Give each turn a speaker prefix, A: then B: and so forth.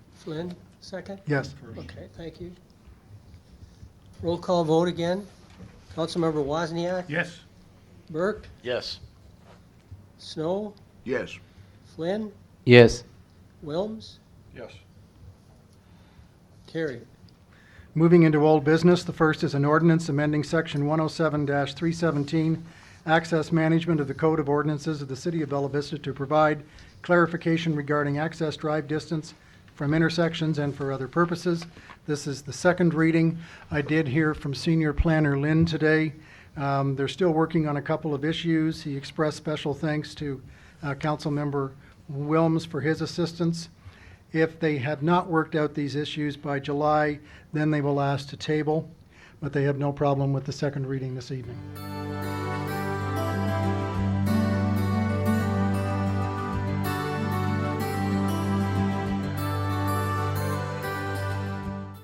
A: Flynn, second?
B: Yes.
A: Okay, thank you. Roll call vote again. Councilmember Wozniak,
B: Yes.
A: Burke,
C: Yes.
A: Snow,
D: Yes.
A: Flynn,
E: Yes.
A: Wilms,
C: Yes.
A: carried.
B: Moving into old business, the first is an ordinance amending Section 107-317, access management of the Code of Ordinances of the City of Bella Vista to provide clarification regarding access drive distance from intersections and for other purposes. This is the second reading. I did hear from Senior Planner Lynn today. Um, They're still working on a couple of issues. He expressed special thanks to uh, Councilmember Wilms for his assistance. If they have not worked out these issues by July, then they will ask to table, but they have no problem with the second reading this evening.